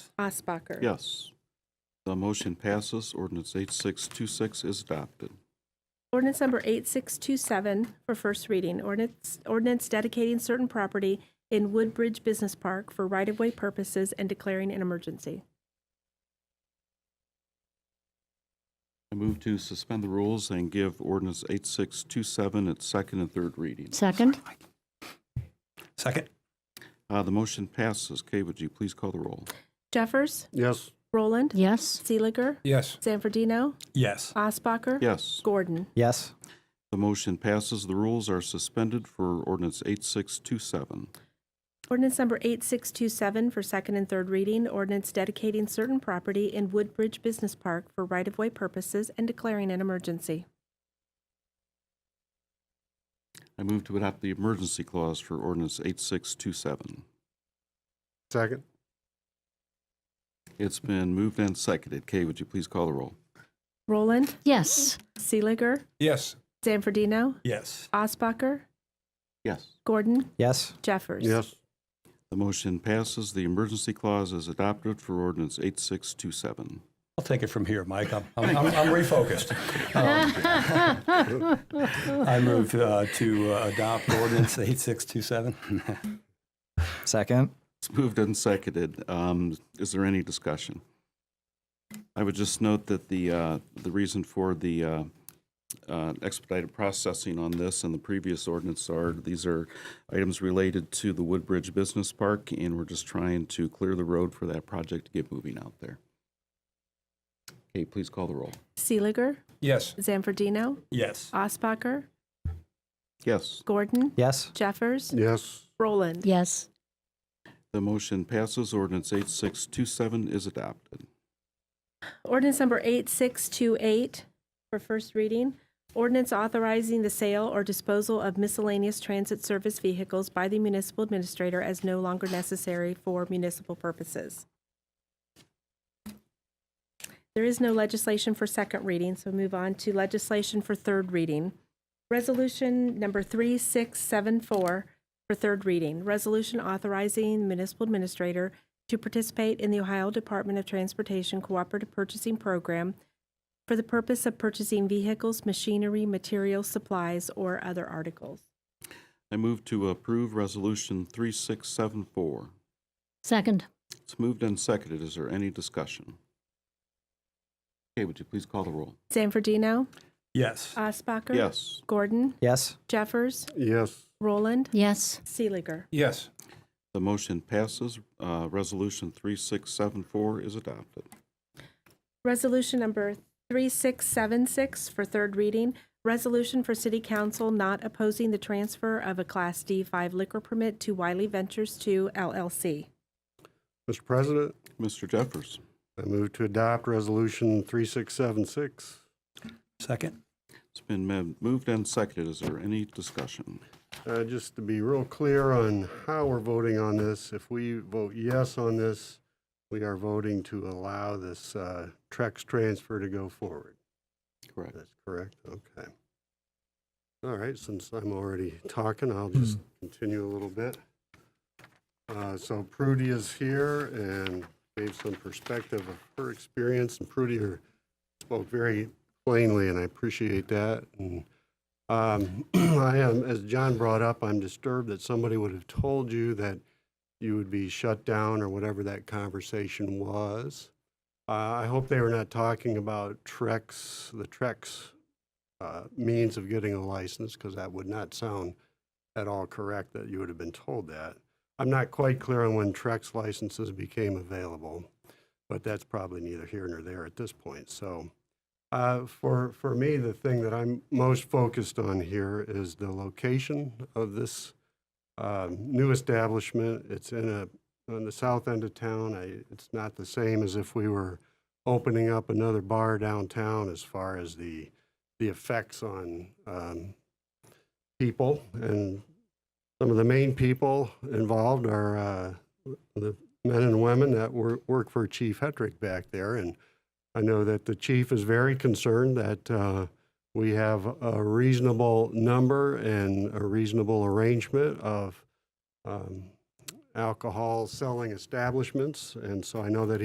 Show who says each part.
Speaker 1: Osbacher.
Speaker 2: Yes. The motion passes. Ordinance 8626 is adopted.
Speaker 1: Ordinance number 8627 for first reading. Ordinance, ordinance dedicating certain property in Woodbridge Business Park for right-of-way purposes and declaring an emergency.
Speaker 2: I move to suspend the rules and give ordinance 8627 its second and third reading.
Speaker 3: Second?
Speaker 4: Second?
Speaker 2: Uh, The motion passes. Kay, would you please call the roll?
Speaker 1: Jeffers,
Speaker 4: Yes.
Speaker 1: Roland,
Speaker 3: Yes.
Speaker 1: Seeliger,
Speaker 4: Yes.
Speaker 1: Zanfordino,
Speaker 4: Yes.
Speaker 1: Osbacher.
Speaker 2: Yes.
Speaker 1: Gordon.
Speaker 4: Yes.
Speaker 2: The motion passes. The rules are suspended for ordinance 8627.
Speaker 1: Ordinance number 8627 for second and third reading. Ordinance dedicating certain property in Woodbridge Business Park for right-of-way purposes and declaring an emergency.
Speaker 2: I move to adopt the emergency clause for ordinance 8627.
Speaker 5: Second?
Speaker 2: It's been moved and seconded. Kay, would you please call the roll?
Speaker 1: Roland,
Speaker 3: Yes.
Speaker 1: Seeliger,
Speaker 4: Yes.
Speaker 1: Zanfordino,
Speaker 4: Yes.
Speaker 1: Osbacher,
Speaker 2: Yes.
Speaker 1: Gordon,
Speaker 4: Yes.
Speaker 1: Jeffers.
Speaker 5: Yes.
Speaker 2: The motion passes. The emergency clause is adopted for ordinance 8627.
Speaker 4: I'll take it from here, Mike. I'm, I'm, I'm I'm refocused. Um, I move uh, to uh, adopt ordinance 8627.
Speaker 6: Second.
Speaker 2: It's moved and seconded. Um, Is there any discussion? I would just note that the, uh, the reason for the uh, uh, expedited processing on this and the previous ordinance are, these are items related to the Woodbridge Business Park, and we're just trying to clear the road for that project to get moving out there. Okay, please call the roll.
Speaker 1: Seeliger,
Speaker 4: Yes.
Speaker 1: Zanfordino,
Speaker 4: Yes.
Speaker 1: Osbacher,
Speaker 2: Yes,
Speaker 1: Gordon,
Speaker 6: Yes.
Speaker 1: Jeffers,
Speaker 5: Yes.
Speaker 1: Roland.
Speaker 3: Yes.
Speaker 2: the motion passes. Ordinance 8627 is adopted.
Speaker 1: Ordinance number 8628 for first reading. Ordinance authorizing the sale or disposal of miscellaneous transit service vehicles by the municipal administrator as no longer necessary for municipal purposes. There is no legislation for second reading, so move on to legislation for third reading. Resolution number 3674 for third reading. Resolution authorizing municipal administrator to participate in the Ohio Department of Transportation Cooperative Purchasing Program for the purpose of purchasing vehicles, machinery, materials, supplies, or other articles.
Speaker 2: I move to approve Resolution 3674.
Speaker 3: Second?
Speaker 2: It's moved and seconded. Is there any discussion? Okay, would you please call the roll?
Speaker 1: Zanfordino,
Speaker 4: Yes.
Speaker 1: Osbacher.
Speaker 2: Yes.
Speaker 1: Gordon,
Speaker 6: Yes.
Speaker 1: Jeffers,
Speaker 5: Yes.
Speaker 1: Roland,
Speaker 3: Yes.
Speaker 1: Seeliger.
Speaker 4: Yes.
Speaker 2: The motion passes. Uh, Resolution 3674 is adopted.
Speaker 1: Resolution number 3676 for third reading. Resolution for City Council not opposing the transfer of a Class D5 liquor permit to Wiley Ventures 2 LLC.
Speaker 5: Mr. President,
Speaker 2: Mr. Jeffers,
Speaker 5: I move to adopt Resolution 3676.
Speaker 4: Second?
Speaker 2: it's been mo- moved and seconded. Is there any discussion?
Speaker 5: Uh, Just to be real clear on how we're voting on this, if we vote yes on this, we are voting to allow this uh, Trex transfer to go forward.
Speaker 2: Correct.
Speaker 5: That's correct? Okay. All right, since I'm already talking, I'll just continue a little bit. Uh, So Prudy is here and gave some perspective of her experience, and Prudy her- spoke very plainly, and I appreciate that. And um, I am, as John brought up, I'm disturbed that somebody would have told you that you would be shut down or whatever that conversation was. Uh, I hope they were not talking about Trex, the Trex uh, means of getting a license, because that would not sound at all correct that you would have been told that. I'm not quite clear on when Trex licenses became available, but that's probably neither here nor there at this point. So uh, for, for me, the thing that I'm most focused on here is the location of this um, new establishment. It's in a on the south end of town. I, it's not the same as if we were opening up another bar downtown as far as the, the effects on um, people. And some of the main people involved are uh, the men and women that wor- work for Chief Hetrick back there. And I know that the chief is very concerned that uh, we have a reasonable number and a reasonable arrangement of um, alcohol selling establishments. And so I know that